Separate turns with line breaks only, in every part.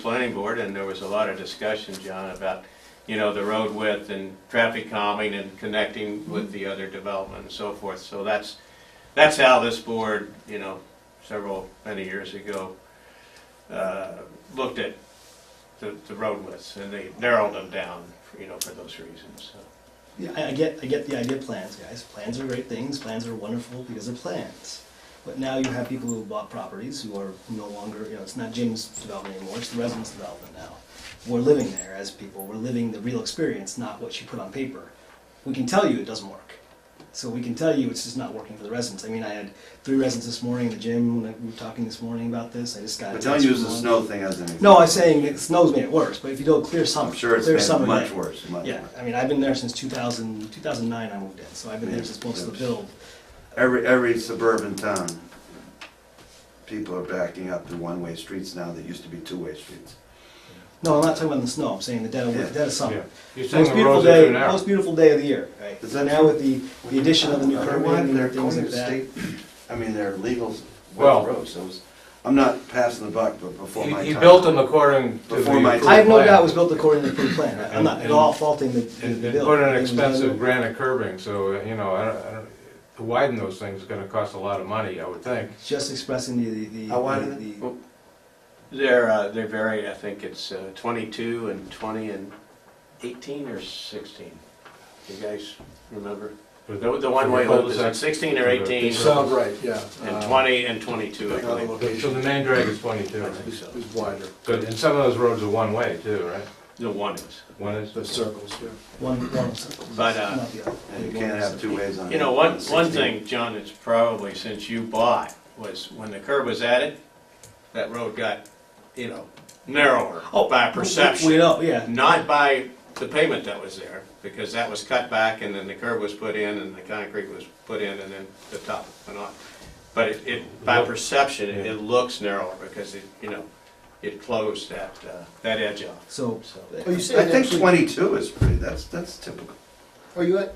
planning board, and there was a lot of discussion, John, about, you know, the road width and traffic calming and connecting
Mm-hmm.
with the other development and so forth. So that's, that's how this board, you know, several, many years ago, uh, looked at the, the road widths, and they narrowed them down, you know, for those reasons, so.
Yeah, I, I get, I get the idea of plans, guys. Plans are great things. Plans are wonderful because they're plans. But now you have people who bought properties who are no longer, you know, it's not Jim's development anymore. It's the residents' development now. We're living there as people. We're living the real experience, not what you put on paper. We can tell you it doesn't work. So we can tell you it's just not working for the residents. I mean, I had three residents this morning in the gym when I- we were talking this morning about this. I just got. a
But don't
text
use
from
the
one.
snow thing as an example.
No, I'm saying it snow's made it worse. But if you do a clear summer,
I'm sure it's
clear
been
summer
much
day.
worse, much
Yeah,
worse.
I mean, I've been there since 2000, 2009 I moved in, so I've been there
Yeah,
since most of the
yeah.
build.
Every, every suburban town, people are backing up to one-way streets now that used to be two-way streets.
No, I'm not talking about the snow, I'm saying the dead of,
Yeah.
dead of summer.
You're saying
Most
the
beautiful
roads are
day,
too narrow.
most beautiful day of the year, right?
Is that
Now
true?
with the, the addition of the new
I
curb
wonder why
lane
they're
and things
going
like
to
that.
state- I mean, they're legal
Well-
wet roads, so it's- I'm not passing the buck, but before
He
my time.
he built them according to the.
Before my
approved
time.
I have no
plan.
doubt it was built according to the approved plan, I- I'm not at
And-
all faulting the, the
And
the
and
build.
put in
It was done-
expensive granite curbing, so, uh, you know, I don't, I don't, to widen those things is gonna cost a lot of money, I would think.
Just expressing the, the- the.
How wide
the-
are they?
the-
They're, uh, they vary, I think it's uh, 22 and 20 and 18 or 16. You guys remember? The the one-way loop is like 16 or 18,
Sounds right, yeah.
Uh,
and 20 and 22, I
Another
believe.
So the
location
main drag is twenty-two,
I
right?
think so.
is wider,
So- and some of those roads are one-way too, right?
The one is.
One is.
the circles, yeah.
One, one circle,
But, uh,
not the other.
And you can't have two ways on.
You know, one,
on
one
16.
thing, John, that's probably since you bought, was when the curb was added, that road got, you know, narrower by
We
perception.
know, yeah,
Not by the pavement that was there, because that was cut back and then the curb was put in and the concrete was put in and then the top went on. But it, it, by
Look.
perception, it it looks narrower because it, you know, it closed that, uh, that edge off.
so.
So,
Are you
I
saying
think
actually,
twenty-two is pretty, that's, that's typical.
are you at,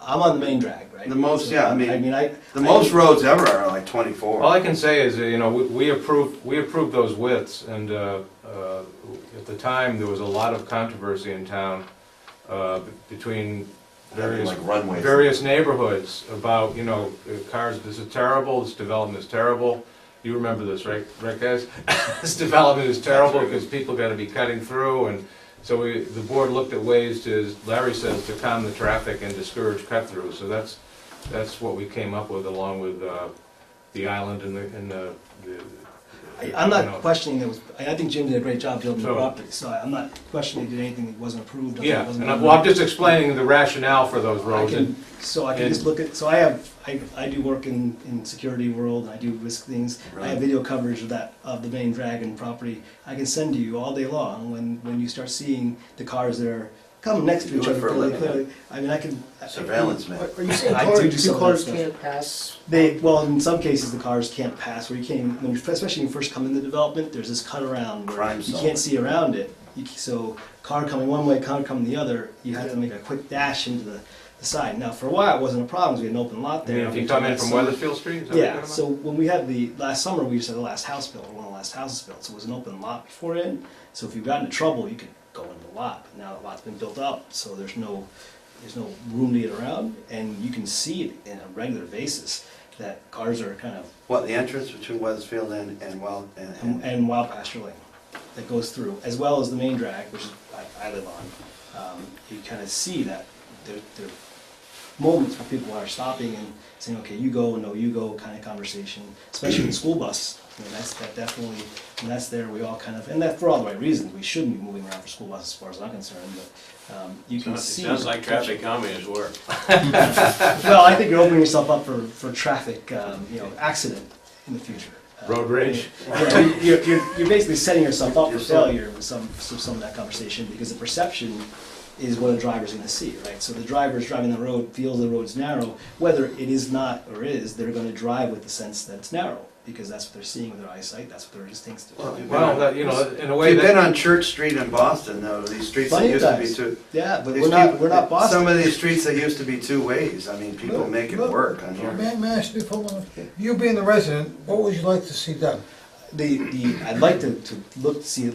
I'm on the main drag, right?
The most,
So,
yeah, I mean-
I mean, I. I-
The most roads ever are like
All
twenty-four.
I can say is, uh, you know, we- we approved, we approved those widths, and uh, uh, at the time, there was a lot of controversy in town uh, b- between
Having
various,
like runways.
various neighborhoods about, you know, uh, cars, this is terrible, this development is terrible. You remember this, right, right guys? This development is terrible because people gotta be cutting through, and so we, the board looked at ways to, as Larry says, to calm the traffic and discourage cut-through, so that's, that's what we came up with along with uh, the island and the, and the. the-
I- I'm
you know.
not questioning it was, I I think Jim did a great job building the
So-
property, so I- I'm not questioning he did anything that wasn't approved. nothing that
Yeah,
wasn't
and I'm,
done
well, I'm
right.
just explaining the rationale for those
I
roads.
can,
and-
so I can just look at, so I have, I, I do work in, in security world, and I do risk things. I have
Right.
video coverage of that, of the main Dragon property. I can send to you all day long when, when you start seeing the cars that are coming next
You
to
do
each
it
other
for a
clearly,
living.
clearly. I mean, I can. I-
Surveillance, man.
are are you saying
I do do
cars,
some
two
of that
cars
stuff.
can't pass?
They, well, in some cases, the cars can't pass where you can't, when you, especially when you first come into development, there's this cut around where
Crime
you
solving.
can't see around it. You, c- so car coming one way, car coming the other, you have to make a quick dash into the, the side. Now, for a while, it wasn't a problem, 'cause we had an open lot
I mean,
there.
if you come in from
So-
Weathersfield Street, is that what you're
yeah,
talking
so when we had the, last summer, we just had the last house built, or one of the last houses built, so it was an open lot before it. So if you got into trouble, you could go into the lot, but now the lot's been built up, so there's no, there's no room to get around, and you can see it in a regular basis, that cars are kind of,
What, the entrance between Weathersfield and, and Wild, and-
and-
and,
and wild pasture lane that goes through, as well as the main drag, which is, I, I live on. Um, you kind of see that, there, there are moments where people are stopping and saying, okay, you go, no, you go, kind of conversation, especially in the school bus. I mean, that's, that definitely, when that's there, we all kind of, and that for all the right reasons, we shouldn't be moving around for school buses, as far as I'm concerned, but, um, you can
It
see.
sounds like traffic calming has worked.
Well, I think you're opening yourself up for, for traffic, um, you know, accident in the future. Uh,
Road rage.
yeah, you- You're, you're, you're basically setting yourself up for
Yourself.
failure with some, some some of that conversation, because the perception is what a driver's gonna see, right? So the driver's driving the road, feels the road's narrow, whether it is not or is, they're gonna drive with the sense that it's narrow, because that's what they're seeing with their eyesight, that's what their instincts
Well,
do.
you-
Well, that, you know, in a
If
way
you've been
that,
on Church Street in Boston, though, these streets that
Plenty of
used to be
times.
two.
Yeah, but
these
we're not,
people-
we're not
Some
Boston.
of these streets that used to be two ways, I mean, people
Look,
make it
look.
Oh,
work on here.
May, may I ask you, for a moment? you being the resident, what would you like to see done?
the, the, I'd like to, to look, see at least